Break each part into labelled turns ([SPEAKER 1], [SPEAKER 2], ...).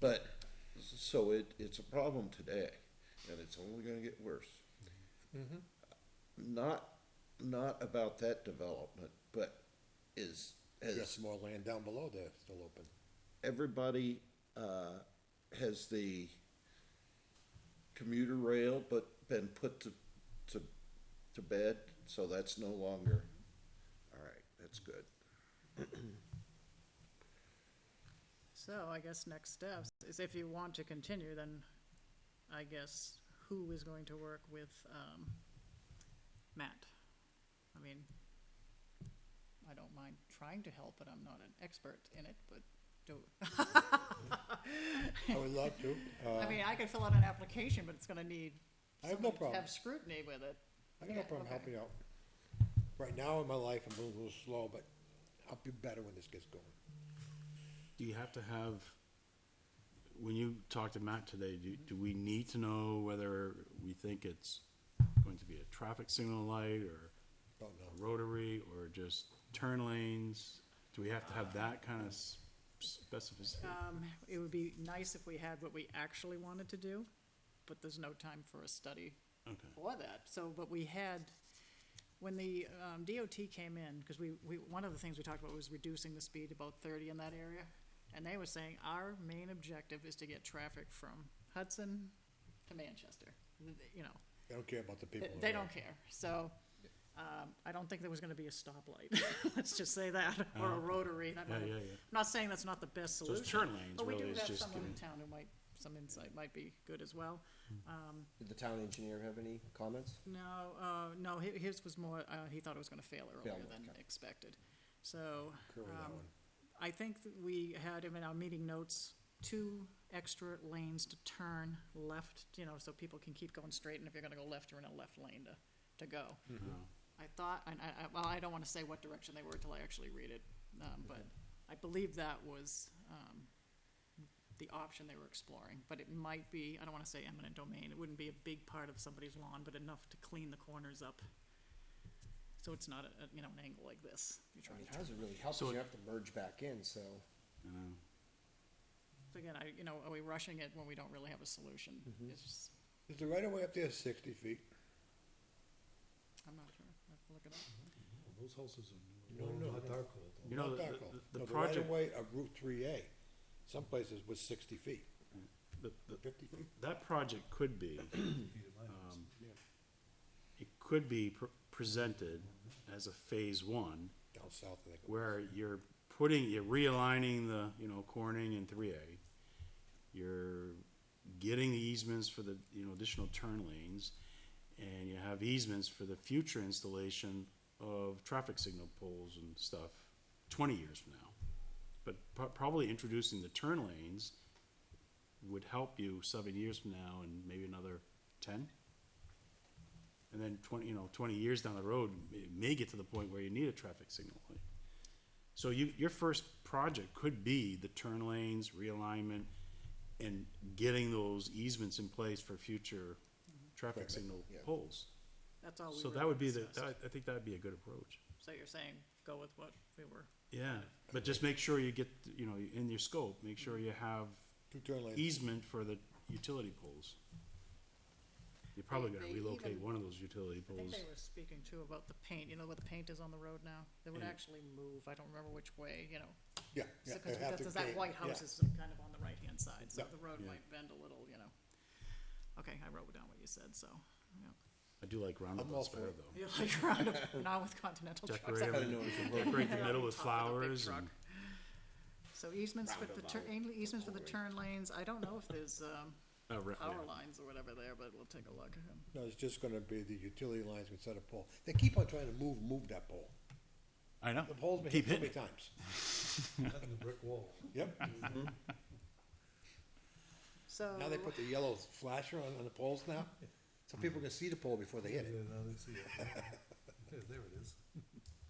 [SPEAKER 1] But, so it, it's a problem today, and it's only gonna get worse. Not, not about that development, but is,
[SPEAKER 2] There's
[SPEAKER 1] has
[SPEAKER 2] some more land down below there still open.
[SPEAKER 1] everybody, uh, has the commuter rail but been put to, to, to bed, so that's no longer, all right, that's good.
[SPEAKER 3] So I guess next steps is if you want to continue, then I guess who is going to work with, um, Matt? I mean, I don't mind trying to help, but I'm not an expert in it, but do,
[SPEAKER 2] I would love to. Uh,
[SPEAKER 3] I mean, I could fill out an application, but it's gonna need.
[SPEAKER 2] I have no
[SPEAKER 3] someone to
[SPEAKER 2] problem.
[SPEAKER 3] Have scrutiny with it.
[SPEAKER 2] I got no problem
[SPEAKER 3] okay.
[SPEAKER 2] helping out. Right now in my life, I'm moving a little slow, but I'll be better when this gets going.
[SPEAKER 4] Do you have to have, when you talk to Matt today, do, do we need to know whether we think it's going to be a traffic signal light or
[SPEAKER 2] Don't
[SPEAKER 4] a
[SPEAKER 2] know.
[SPEAKER 4] rotary or just turn lanes? Do we have to have that kind of s- specificity?
[SPEAKER 3] Um, it would be nice if we had what we actually wanted to do, but there's no time for a study
[SPEAKER 4] Okay.
[SPEAKER 3] for that. So, but we had, when the um, DOT came in, because we, we, one of the things we talked about was reducing the speed about thirty in that area. And they were saying, our main objective is to get traffic from Hudson to Manchester, Th- th- you know,
[SPEAKER 2] They don't care about the people.
[SPEAKER 3] they-
[SPEAKER 2] over
[SPEAKER 3] they
[SPEAKER 2] there.
[SPEAKER 3] don't care. So, um, I don't think there was gonna be a stoplight, let's just say that, or a
[SPEAKER 4] Oh.
[SPEAKER 3] rotary. and I
[SPEAKER 4] Yeah,
[SPEAKER 3] might-
[SPEAKER 4] yeah, yeah.
[SPEAKER 3] I'm not saying that's not the best
[SPEAKER 4] So
[SPEAKER 3] solution.
[SPEAKER 4] it's turn lanes
[SPEAKER 3] But we
[SPEAKER 4] really
[SPEAKER 3] do
[SPEAKER 4] is
[SPEAKER 3] have
[SPEAKER 4] just
[SPEAKER 3] someone in
[SPEAKER 4] giving,
[SPEAKER 3] town who might, some insight might be good as well.
[SPEAKER 5] Did the town engineer have any comments?
[SPEAKER 3] No, uh, no, hi- his was more, uh, he thought it was gonna fail earlier
[SPEAKER 5] Fail,
[SPEAKER 3] than
[SPEAKER 5] okay.
[SPEAKER 3] expected. So,
[SPEAKER 2] Curve that
[SPEAKER 3] um,
[SPEAKER 2] one.
[SPEAKER 3] I think that we had in our meeting notes, two extra lanes to turn left, you know, so people can keep going straight, and if you're gonna go left, you're in a left lane to, to go. I thought, and I, I, well, I don't wanna say what direction they were till I actually read it, um, but I believe that was, um, the option they were exploring, but it might be, I don't wanna say eminent domain, it wouldn't be a big part of somebody's lawn, but enough to clean the corners up. So it's not a, a, you know, an angle like this, you're
[SPEAKER 5] I
[SPEAKER 3] trying
[SPEAKER 5] mean,
[SPEAKER 3] to
[SPEAKER 5] how does it really help?
[SPEAKER 4] So
[SPEAKER 5] if You
[SPEAKER 4] it-
[SPEAKER 5] have to merge back in, so.
[SPEAKER 4] you know,
[SPEAKER 3] So Again, I, you know, are we rushing it when we don't really have a solution? It's just,
[SPEAKER 2] Is the right of way up there sixty feet?
[SPEAKER 3] I'm not sure, I have to look it up.
[SPEAKER 6] Those houses are
[SPEAKER 2] No, no,
[SPEAKER 6] not
[SPEAKER 2] no.
[SPEAKER 6] dark old.
[SPEAKER 4] You know,
[SPEAKER 2] Not
[SPEAKER 4] the-
[SPEAKER 2] that
[SPEAKER 4] the-
[SPEAKER 2] close.
[SPEAKER 4] the
[SPEAKER 2] No, Right
[SPEAKER 4] project-
[SPEAKER 2] of way of Route three A, some places was sixty feet,
[SPEAKER 4] the, the,
[SPEAKER 2] fifty feet.
[SPEAKER 4] that project could be,
[SPEAKER 6] Um,
[SPEAKER 4] it could be pr- presented as a phase one
[SPEAKER 2] Down south, I think. it was.
[SPEAKER 4] where you're putting, you're realigning the, you know, Corning and three A. You're getting the easements for the, you know, additional turn lanes. And you have easements for the future installation of traffic signal poles and stuff twenty years from now. But pro- probably introducing the turn lanes would help you seven years from now and maybe another ten. And then twenty, you know, twenty years down the road, it may get to the point where you need a traffic signal light. So you, your first project could be the turn lanes, realignment, and getting those easements in place for future traffic
[SPEAKER 2] Right,
[SPEAKER 4] signal
[SPEAKER 2] yeah.
[SPEAKER 4] poles.
[SPEAKER 3] That's all Oh, we
[SPEAKER 4] So that would be
[SPEAKER 3] really
[SPEAKER 4] the,
[SPEAKER 3] discussed.
[SPEAKER 4] that- I think that'd be a good approach.
[SPEAKER 3] So you're saying, go with what we were,
[SPEAKER 4] Yeah, but just make sure you get, you know, in your scope, make sure you have
[SPEAKER 2] Two turn lanes.
[SPEAKER 4] easement for the utility poles. You're probably gonna
[SPEAKER 3] They- they
[SPEAKER 4] relocate
[SPEAKER 3] even-
[SPEAKER 4] one of those utility
[SPEAKER 3] I think
[SPEAKER 4] poles.
[SPEAKER 3] they were speaking too about the paint, you know, where the paint is on the road now? They would
[SPEAKER 4] Yeah.
[SPEAKER 3] actually move, I don't remember which way, you know.
[SPEAKER 2] Yeah. Mm. yeah,
[SPEAKER 3] Because
[SPEAKER 2] they have to
[SPEAKER 3] that
[SPEAKER 2] gain-
[SPEAKER 3] white
[SPEAKER 2] yeah.
[SPEAKER 3] house is kind of on the right-hand side, so
[SPEAKER 2] Yeah.
[SPEAKER 3] the road
[SPEAKER 4] Yeah.
[SPEAKER 3] might bend a little, you know. Okay, I wrote down what you said, so, yeah.
[SPEAKER 4] I do like roundabouts
[SPEAKER 2] for
[SPEAKER 4] better
[SPEAKER 2] it.
[SPEAKER 4] though.
[SPEAKER 3] You're like, round up- now with continental trucks. I
[SPEAKER 4] Decorate,
[SPEAKER 3] wouldn't
[SPEAKER 4] them- decorate
[SPEAKER 3] Top
[SPEAKER 4] the middle with
[SPEAKER 3] of the big
[SPEAKER 4] flowers
[SPEAKER 3] truck.
[SPEAKER 4] and,
[SPEAKER 3] So easements for the turn, easements for the turn lanes, I don't know if there's, um,
[SPEAKER 4] uh, re-
[SPEAKER 3] power
[SPEAKER 4] yeah.
[SPEAKER 3] lines or whatever there, but we'll take a look.
[SPEAKER 2] No, it's just gonna be the utility lines instead of pole. They keep on trying to move, move that pole.
[SPEAKER 4] I know,
[SPEAKER 2] The pole's been
[SPEAKER 4] keep
[SPEAKER 2] hit so many
[SPEAKER 4] hitting. it.
[SPEAKER 2] times.
[SPEAKER 6] Cutting the brick wall. Mm-hmm.
[SPEAKER 2] Yep.
[SPEAKER 3] So,
[SPEAKER 2] Now they put the yellow flasher on, on the poles now, so people can see the pole before they hit
[SPEAKER 6] Yeah,
[SPEAKER 2] it.
[SPEAKER 6] now they see it. Yeah, there it is.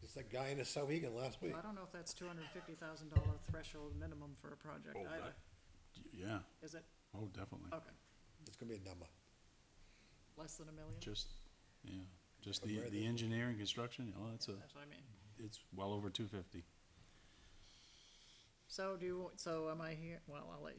[SPEAKER 2] It's that guy in the Sohegan last week.
[SPEAKER 3] I don't know if that's two hundred and fifty thousand dollar threshold minimum for a project
[SPEAKER 4] Oh,
[SPEAKER 3] either,
[SPEAKER 4] that- Yeah,
[SPEAKER 3] is it?
[SPEAKER 4] oh, definitely.
[SPEAKER 3] Okay,
[SPEAKER 2] It's gonna be a number.
[SPEAKER 3] less than a million,
[SPEAKER 4] Just, yeah, just
[SPEAKER 2] But
[SPEAKER 4] the,
[SPEAKER 2] where
[SPEAKER 4] the
[SPEAKER 2] the-
[SPEAKER 4] engineering, construction, oh, that's a,
[SPEAKER 3] that's what I mean.
[SPEAKER 4] it's well over two fifty.
[SPEAKER 3] So do you, so am I here, well, I'll let you.